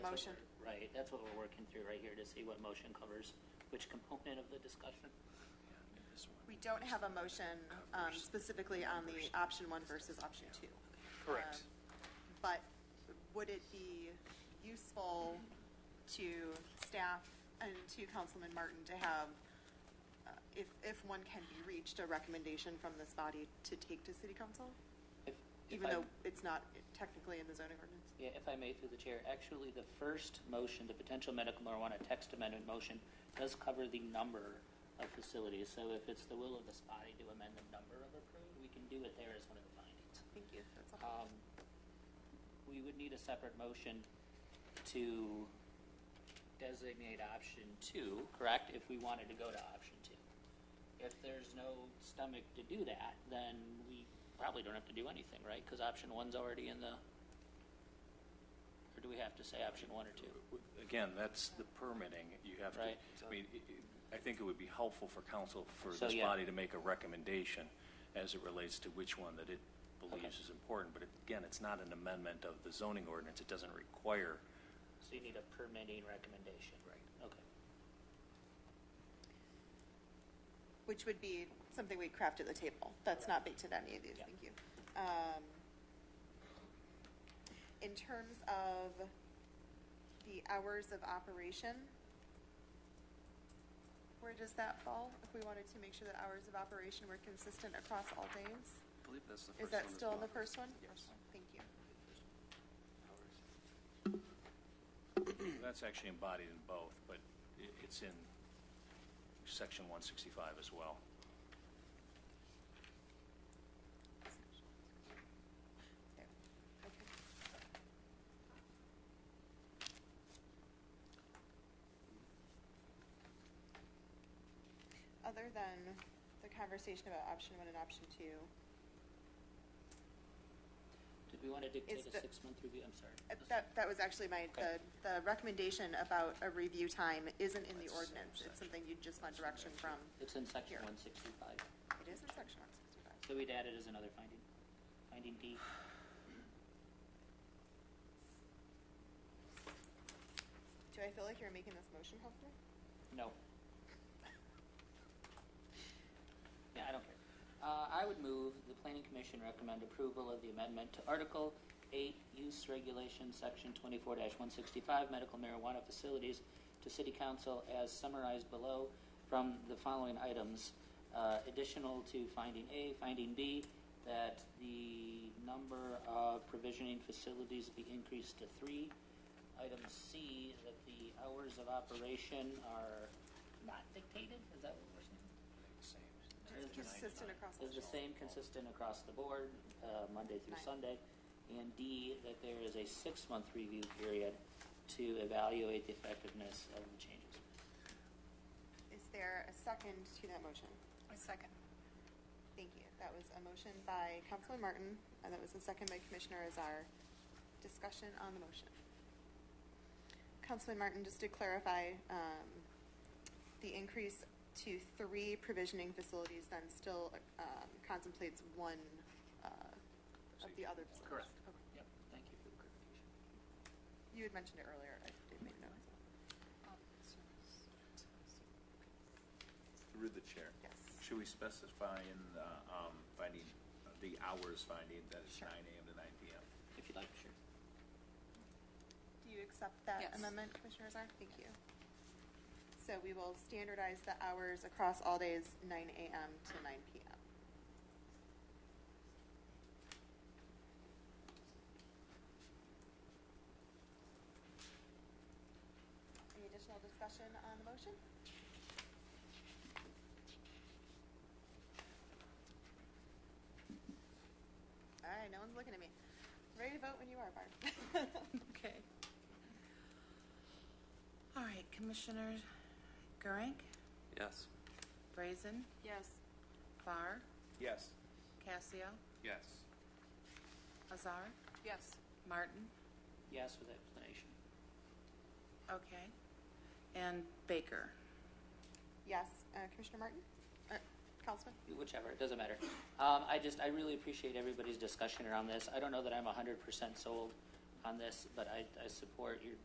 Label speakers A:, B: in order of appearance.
A: what
B: motion.
A: we're- Right, that's what we're working through right here to see what motion covers which component of the discussion.
B: We don't have a motion um, specifically on the option one versus option two.
C: Correct.
B: Um, But would it be useful to staff and to Councilman Martin to have, uh, if, if one can be reached, a recommendation from this body to take to city council?
A: If- if
B: Even
A: I-
B: though it's not technically in the zoning ordinance?
A: Yeah, if I may, through the chair, actually, the first motion, the potential medical marijuana text amendment motion, does cover the number of facilities. So if it's the will of this body to amend the number of approved, we can do it there as one of the findings.
B: Thank you, that's all.
A: Um, We would need a separate motion to designate option two, correct, if we wanted to go to option two. If there's no stomach to do that, then we probably don't have to do anything, right? Because option one's already in the, or do we have to say option one or two?
C: Again, that's the permitting, you have to,
A: Right.
C: I mean, it- it- I think it would be helpful for council, for
A: So,
C: this
A: yeah.
C: body to make a recommendation as it relates to which one that it believes
A: Okay.
C: is important, but it- again, it's not an amendment of the zoning ordinance, it doesn't require,
A: So you need a permitting recommendation?
C: Right.
A: Okay.
B: Which would be something we'd craft at the table. That's not baked into any of these,
A: Yeah.
B: thank you. Um, In terms of the hours of operation, where does that fall? If we wanted to make sure that hours of operation were consistent across all days?
D: I believe that's the first one.
B: Is that
D: as
B: still in the
D: well.
B: first one?
D: Yes.
B: Thank you.
C: that's actually embodied in both, but i- it's in section 165 as well.
B: There. Okay. Other than the conversation about option one and option two,
A: Did we want to dictate
B: Is
A: a
B: the-
A: six-month review? I'm sorry.
B: uh, that, that was actually my, the,
A: Okay.
B: the recommendation about a review time isn't in the
C: That's the same
B: ordinance. It's
C: section.
B: something you just want direction from.
A: It's in section
B: Here.
A: 165.
B: It is in section one sixty-five.
A: So we'd add it as another finding, finding D.
B: Do I feel like you're making this motion, Humphrey?
A: No. Yeah, I don't care. Uh, I would move the planning commission recommend approval of the amendment to Article 8, Use Regulation, Section 24-165, Medical Marijuana Facilities to City Council as summarized below from the following items. Uh, Additional to finding A, finding B, that the number of provisioning facilities be increased to three, Item C, that the hours of operation are not dictated, is that what we're saying?
B: Just consistent across all
A: Is the
B: days.
A: same consistent across the board, uh, Monday through
B: Right.
A: Sunday? And D, that there is a six-month review period to evaluate the effectiveness of the changes.
B: Is there a second to that motion?
E: A second.
B: Thank you. That was a motion by Councilman Martin, and that was a second by Commissioner Azar. Discussion on the motion. Councilman Martin, just to clarify, um, the increase to three provisioning facilities then still um, contemplates one uh, of the other facilities? Okay.
A: Yep, thank you for the clarification.
B: You had mentioned it earlier. I did make notes.
F: Through the chair.
B: Yes.
F: Should we specify in, the, um, finding, the hours finding that it's
B: Sure.
F: nine AM to nine PM?
A: If you'd like, sure.
B: Do you accept that
E: Yes.
B: amendment, Commissioner Azar? Thank you. So we will standardize the hours across all days, 9 AM to 9 PM. Any additional discussion on the motion? All right, no one's looking at me. Ready to vote when you are, Barb.
E: Okay. All right, Commissioner Gorank,
D: Yes.
E: Brazen,
B: Yes.
E: Barr,
F: Yes.
E: Casio,
F: Yes.
E: Azar,
B: Yes.
E: Martin,
A: Yes with explanation.
E: okay, and Baker.
B: Yes, uh, Commissioner Martin? Uh, Councilman?
A: whichever, it doesn't matter. Um, I just, I really appreciate everybody's discussion around this. I don't know that I'm hundred percent sold on this, but I, I support your